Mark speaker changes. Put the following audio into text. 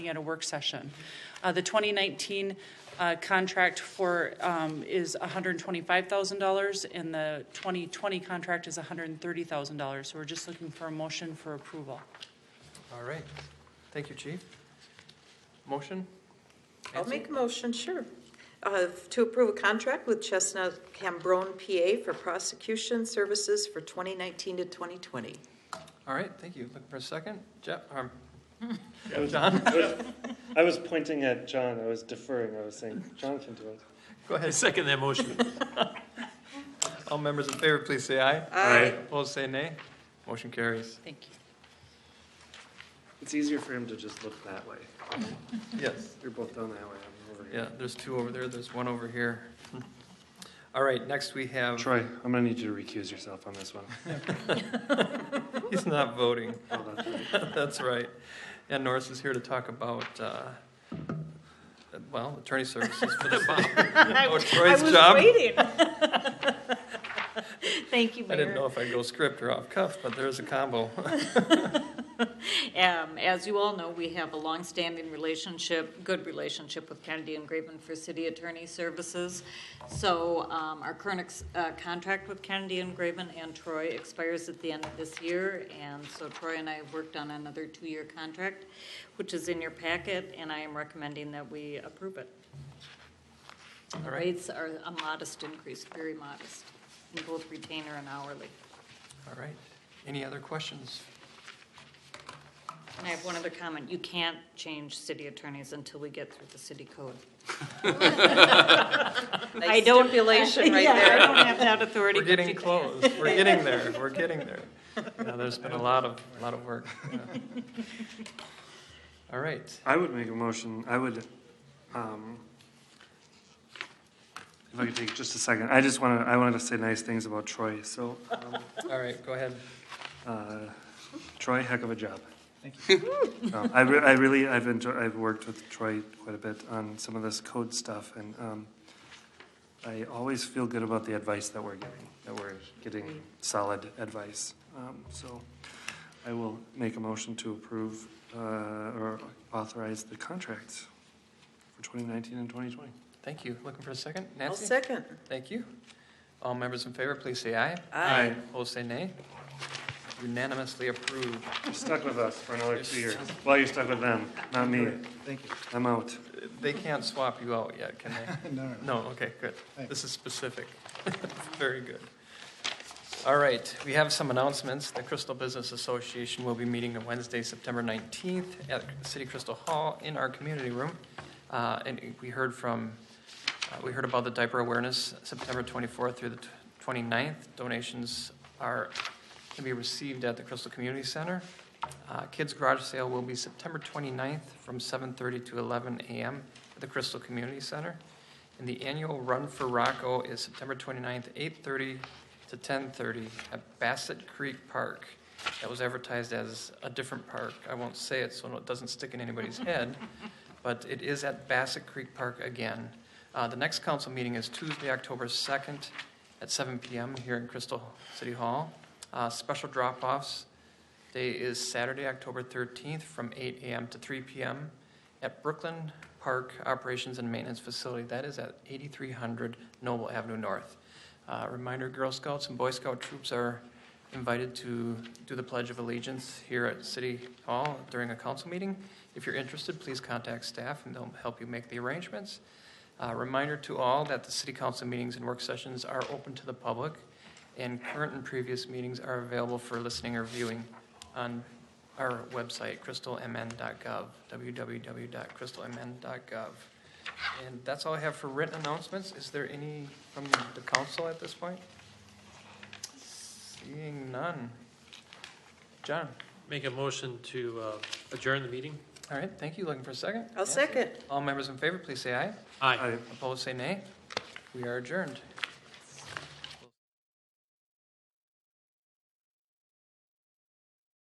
Speaker 1: at a work session. Uh, The 2019 uh, contract for, um, is $125,000, and the 2020 contract is $130,000. So we're just looking for a motion for approval.
Speaker 2: All right. Thank you, Chief. Motion?
Speaker 3: I'll make a motion, sure, uh, to approve a contract with Chestnut Cambrone, PA for prosecution services for 2019 to 2020.
Speaker 2: All right, thank you. Looking for a second? Jeff, um,
Speaker 4: I was,
Speaker 2: John?
Speaker 4: I was, I was pointing at John. I was deferring. I was saying, John can do it.
Speaker 2: Go
Speaker 5: I
Speaker 2: ahead.
Speaker 5: second that motion.
Speaker 2: All members in favor, please say aye.
Speaker 5: Aye.
Speaker 2: Opposed, say nay. Motion carries.
Speaker 1: Thank you.
Speaker 4: It's easier for him to just look that way.
Speaker 2: Yes.
Speaker 4: You're both down that way. I'm over here.
Speaker 2: Yeah, there's two over there, there's one over here. All right, next we have,
Speaker 4: Um, Troy, I'm gonna need you to recuse yourself on this one.
Speaker 2: he's not voting.
Speaker 4: Oh, that's right.
Speaker 2: That's right. And Norris is here to talk about, uh, well, attorney services for the Oh, Troy's
Speaker 3: I
Speaker 2: job.
Speaker 3: was waiting. Thank you,
Speaker 2: I didn't know
Speaker 3: Mayor.
Speaker 2: if I'd go script or off cuff, but there's a combo.
Speaker 3: Um, As you all know, we have a longstanding relationship, good relationship with Kennedy and Graven for city attorney services. So um, our current ex- uh, contract with Kennedy and Graven and Troy expires at the end of this year. And so Troy and I have worked on another two-year contract, which is in your packet, and I am recommending that we approve it. The
Speaker 2: All right.
Speaker 3: rates are a modest increase, very modest, in both retainer and hourly.
Speaker 2: All right, any other questions?
Speaker 3: And I have one other comment. You can't change city attorneys until we get through the city code. I don't. Stipulation right there. I don't have that authority.
Speaker 2: We're
Speaker 3: but
Speaker 2: getting
Speaker 3: you can.
Speaker 2: close, we're getting there, we're getting there. Yeah, there's been a lot of, a lot of work. yeah. All right,
Speaker 4: I would make a motion, I would, um, if I could take just a second, I just wanna, I wanted to say nice things about Troy, so, um,
Speaker 2: all right, go ahead.
Speaker 4: uh, Troy, heck of a job. Thank you. I, re- I really, I've enjoyed, I've worked with Troy quite a bit on some of this code stuff, and, um, I always feel good about the advice that we're getting, that we're getting solid advice. Um, so I will make a motion to approve, uh, or authorize the contracts for twenty nineteen and twenty twenty.
Speaker 2: Thank you. Looking for a second?
Speaker 6: I'll
Speaker 2: Nancy?
Speaker 6: second.
Speaker 2: Thank you. All members in favor, please say aye.
Speaker 6: Aye.
Speaker 2: Opposed, say nay. Unanimously approved.
Speaker 4: You're stuck with us for another two years. Well, you're stuck with them, not me.
Speaker 7: Thank you.
Speaker 4: I'm out.
Speaker 2: They can't swap you out yet, can they?
Speaker 7: No, no, no.
Speaker 2: No, okay, good.
Speaker 7: Thanks.
Speaker 2: This is specific. Very good. All right, we have some announcements. The Crystal Business Association will be meeting on Wednesday, September 19th at City Crystal Hall in our community room. Uh, And we heard from, uh, we heard about the diaper awareness, September 24th through the tw- 29th. Donations are, can be received at the Crystal Community Center. Uh, Kids Garage Sale will be September 29th from 7:30 to 11 a.m. at the Crystal Community Center. And the annual Run for Rocco is September 29th, 8:30 to 10:30 at Bassett Creek Park. That was advertised as a different park. I won't say it so it doesn't stick in anybody's head, but it is at Bassett Creek Park again. Uh, The next council meeting is Tuesday, October 2nd at 7 PM here in Crystal City Hall. Uh, Special drop-offs day is Saturday, October 13th from 8 AM to 3 PM at Brooklyn Park Operations and Maintenance Facility. That is at 8300 Noble Avenue North. Uh, Reminder, Girl Scouts and Boy Scout troops are invited to do the Pledge of Allegiance here at City Hall during a council meeting. If you're interested, please contact staff and they'll help you make the arrangements. Uh, Reminder to all that the city council meetings and work sessions are open to the public, and current and previous meetings are available for listening or viewing on our website, crystalmn.gov, www.crystalmn.gov. And that's all I have for written announcements. Is there any from the council at this point? Seeing none. John,
Speaker 5: Make a motion to uh, adjourn the meeting?
Speaker 2: all right, thank you. Looking for a second?
Speaker 6: I'll second.
Speaker 2: All members in favor, please say aye.
Speaker 5: Aye.
Speaker 4: I-
Speaker 2: Opposed, say nay. We are adjourned.